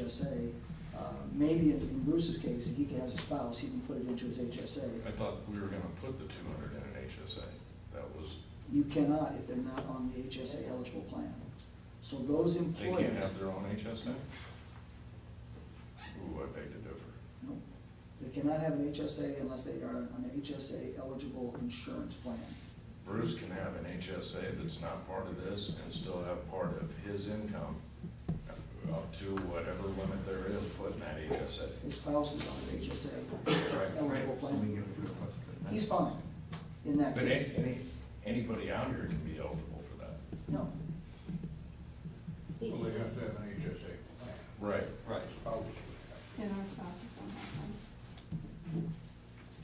HSA. Uh, Maybe if in Bruce's case, he has a spouse, he can put it into his HSA. I thought we were gonna put the two hundred in an HSA. That was, You cannot if they're not on the HSA eligible plan. So those they can't employers, have their own HSA? Ooh, I beg to differ. no, they cannot have an HSA unless they are on an HSA eligible insurance plan. Bruce can have an HSA that's not part of this and still have part of his income up to whatever limit there is put in that HSA, His spouse is on an HSA right? eligible plan He's fine. in that But any, case. any, anybody out here can be eligible for that. No, Well, they have to have an HSA plan. Right. Right. Spouse. And our spouses don't have one.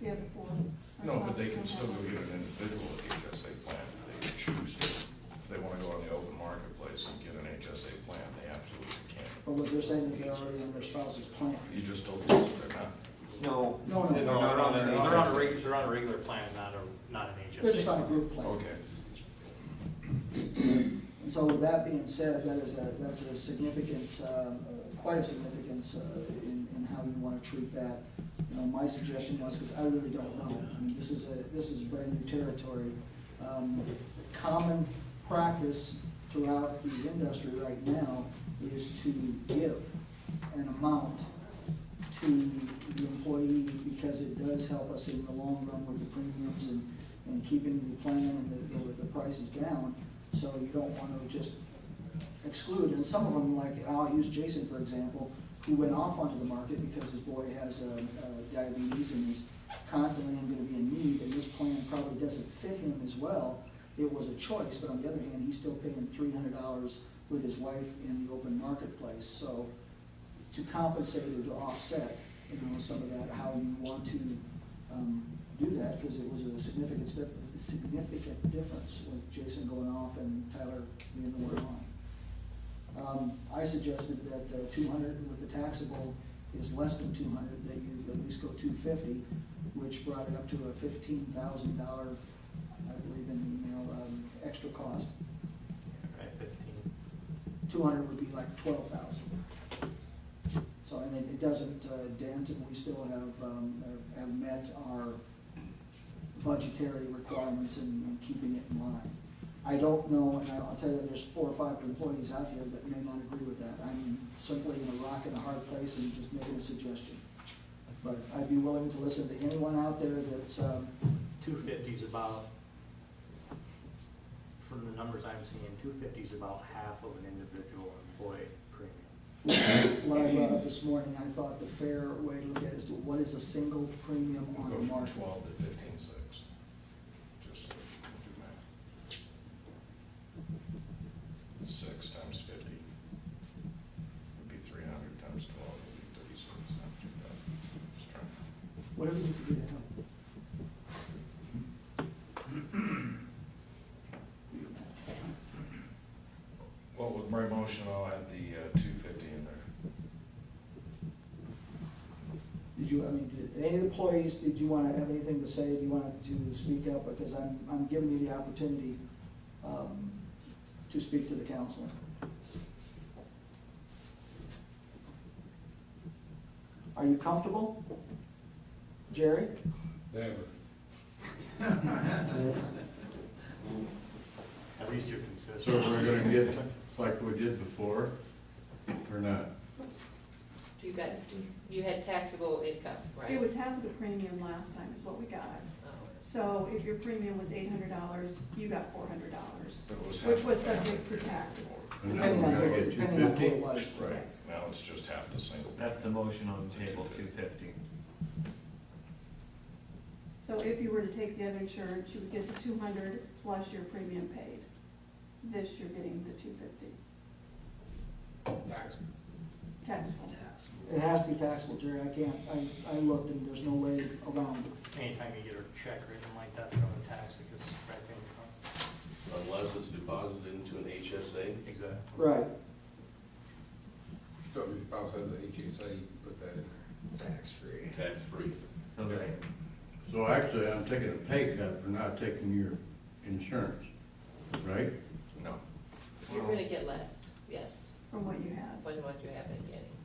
The other four. our No, but they spouses can still go don't have get one. an individual HSA plan if they choose to. If they wanna go on the open marketplace and get an HSA plan, they absolutely can. but what they're saying is they're already on their spouse's plan. You just told us that they're not. No. No, no. They're not on an They're on a HSA. reg, they're on a regular plan, not a, not an HSA. They're just on a group plan. Okay. And so with that being said, that is a, that's a significance, uh, quite a significance uh, in, in how you want to treat that. You know, my suggestion was, because I really don't know, I mean, this is a, this is brand new territory. Um, Common practice throughout the industry right now is to give an amount to the employee because it does help us in the long run with the premiums and, and keeping the plan and the, the- the prices down. So you don't want to just exclude, and some of them, like, I'll use Jason, for example, who went off onto the market because his boy has uh, uh, diabetes and is constantly going to be in need, and this plan probably doesn't fit him as well. It was a choice, but on the other hand, he's still paying three hundred dollars with his wife in the open marketplace, so to compensate or to offset, you know, some of that, how you want to um, do that, because it was a significant step, significant difference with Jason going off and Tyler being the word on. Um, I suggested that uh, two hundred with the taxable is less than two hundred, that you at least go two fifty, which brought it up to a fifteen thousand dollar, I believe in the email, um, extra cost. Right, fifteen. Two hundred would be like twelve thousand. So, and it, it doesn't uh, dent, and we still have, um, have- have met our budgetary requirements and and keeping it in line. I don't know, and I'll tell you, there's four or five employees out here that may not agree with that. I'm simply in a rock and a hard place and just making a suggestion. But I'd be willing to listen to anyone out there that's, um, Two fifty's about, from the numbers I'm seeing, two fifty's about half of an individual employee premium. What I brought up uh, this morning, I thought the fair way to look at it is to what is a single premium We'll on go the from market? twelve to fifteen six. Just so we can do math. Six times fifty would be three hundred times twelve would be thirty-six, not two thousand. Just trying to Whatever you can do to help. Well, with my motion, I'll add the uh, two fifty in there. Did you, I mean, did any employees, did you want to have anything to say? Do you want to speak up? Because I'm, I'm giving you the opportunity um, to speak to the council. Are you comfortable? Jerry? Never. At least you're consistent. So we're gonna get like we did before, or not? Do you got, do- you had taxable income, right? It was half of the premium last time is what we got. Oh. So if your premium was eight hundred dollars, you got four hundred dollars. So it was half Which was the family subject to premium tax. before. And now we're gonna get two Depending on who it fifty? was. Right, now it's just half the single. That's the motion on the table, two fifty. So if you were to take the other insurance, you would get the two hundred plus your premium paid. This, you're getting the two fifty Tax. taxable. It has to be taxable, Jerry. I can't, I, I looked and there's no way around it. Anytime you get a check written like that, they're gonna tax it, cause it's direct income. unless it's deposited into an HSA. Exactly. Right. So if your spouse has a HSA, you put that in there. Tax-free. Tax-free. Okay. So actually, I'm taking a pay cut for not taking your insurance, right? No. You're gonna get less, yes, From what you have. when what you have